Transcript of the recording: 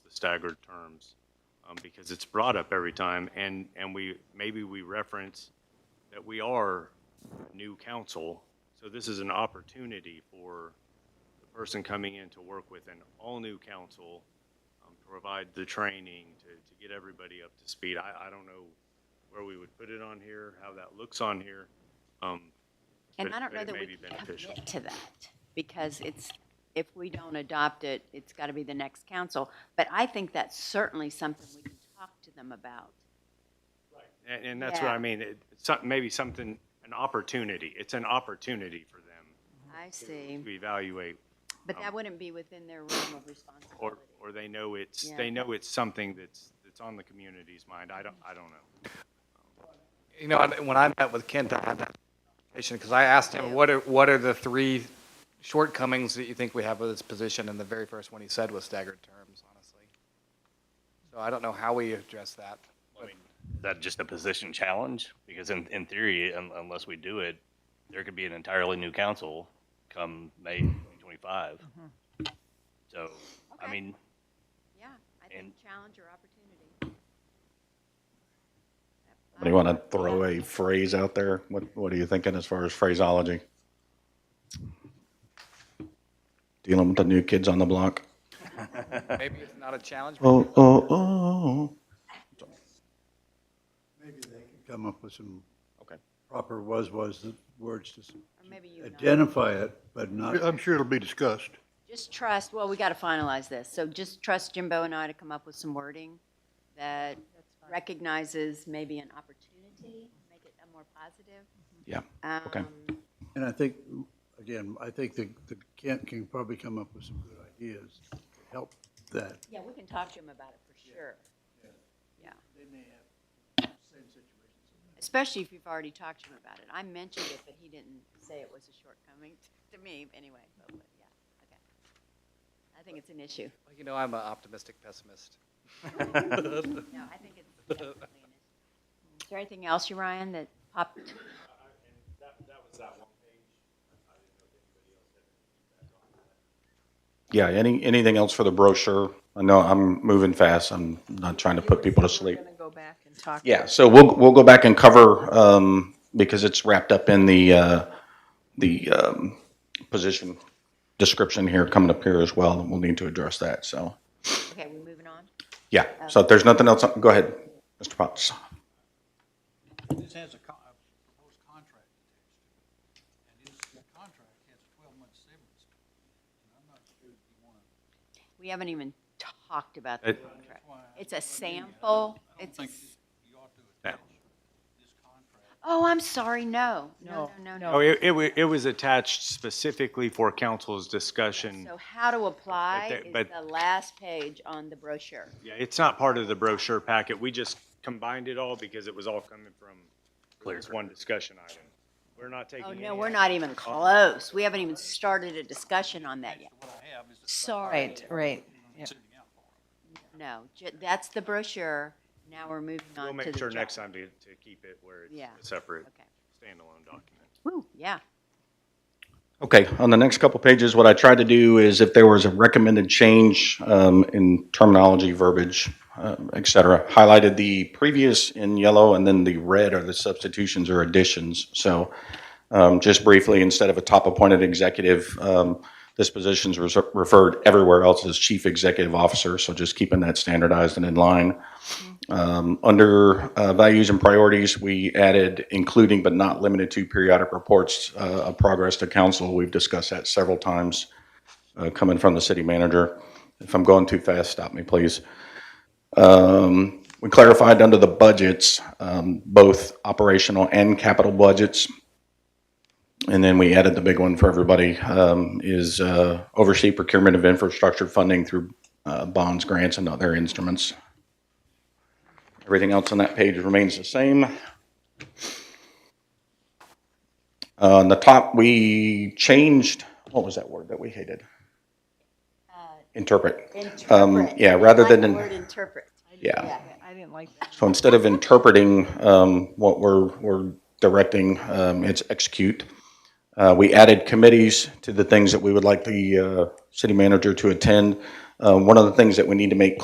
staggered terms, um, because it's brought up every time, and, and we, maybe we reference that we are new council, so this is an opportunity for the person coming in to work with an all-new council, um, to provide the training, to, to get everybody up to speed. I, I don't know where we would put it on here, how that looks on here. Um, And but- I don't but know it that may we be can beneficial. commit to that, because it's, if we don't adopt it, it's got to be the next council. But I think that's certainly something we can talk to them about. And, and that's what Yeah. I mean, it, it's some- maybe something, an opportunity, it's an opportunity for them I see, to evaluate, but that wouldn't be within their realm of or, responsibility. or they know it's, Yeah. they know it's something that's, that's on the community's mind, I don't, I don't know. You know, I- when I met with Kent, I had that conversation because I asked him, what are, what are the three shortcomings that you think we have with this position? And the very first one he said was staggered terms, honestly. So I don't know how we address that. I mean, is that just a position challenge? Because in, in theory, un, unless we do it, there could be an entirely new council come May 2025. So, I Okay. mean, Yeah, I think and- challenge or opportunity. Do you want to throw a phrase out there? What, what are you thinking as far as phraseology? Dealing with the new kids on the block? Maybe it's not a challenge. Oh, oh, oh. Maybe they can come up with some Okay. proper was-was words to s- Or maybe you and I. identify it, but not, I'm sure it'll be discussed. Just trust, well, we got to finalize this, so just trust Jimbo and I to come up with some wording that recognizes maybe an opportunity, make it a more positive. Yeah, okay. Um, and I think, again, I think the the Kent can probably come up with some good ideas to help that. Yeah, we can talk to him about it for sure. Yeah. Especially if you've already talked to him about it. I mentioned it, but he didn't say it was a shortcoming to me anyway, but but yeah, okay. I think it's an issue. You know, I'm an optimistic pessimist. No, I think it's definitely an issue. Is there anything else, you Ryan, that popped? Oh, Yeah, any, anything else for the brochure? I know I'm moving fast. I'm not trying to put people to sleep. We're gonna go back and talk. Yeah, so we'll, we'll go back and cover, um, because it's wrapped up in the, uh, the, um, position description here coming up here as well. We'll need to address that, so. Okay, we're moving on. Yeah, so if there's nothing else, go ahead, Mr. Potts. This has a co- a proposed contract attached to it. And this contract has a twelve-month severance. And I'm not sure if you want to, We haven't even talked about the contract. why It's a sample. uh, I don't It's, a think s- you ought to attach this contract. oh, I'm sorry, no. No, no, no, Oh, no. it, it, wa- it was attached specifically for council's discussion. So how to But apply there- is but- the last page on the brochure. Yeah, it's not part of the brochure packet, we just combined it all because it was all coming from this one discussion item. We're not taking. Oh, no, any we're not even close. We haven't even started a discussion on that yet. Sorry, Right, right. Yeah. no, ju- that's the brochure. Now we're moving on We'll to the. make sure job. next time to, to keep it where Yeah. it's a separate Okay. standalone document. Woo, yeah. Okay, on the next couple pages, what I tried to do is if there was a recommended change um, in terminology, verbiage, um, et cetera, highlighted the previous in yellow and then the red are the substitutions or additions. So um, just briefly, instead of a top-appointed executive, um, this position's res- referred everywhere else as chief executive officer, so just keeping that standardized and in line. Um, Under uh, values and priorities, we added including but not limited to periodic reports uh, of progress to council. We've discussed that several times, uh, coming from the city manager. If I'm going too fast, stop me, please. Um, We clarified under the budgets, um, both operational and capital budgets. And then we added the big one for everybody, um, is uh, oversee procurement of infrastructure funding through uh, bonds, grants, and other instruments. Everything else on that page remains the same. Uh, On the top, we changed, what was that word that we hated? Interpret. Um, Uh, Interpret. Yeah, rather I like than. the word interpret. Yeah, I didn't like that. so instead of interpreting um, what we're, we're directing, um, it's execute. Uh, We added committees to the things that we would like the uh, city manager to attend. Uh, One of the things that we need to make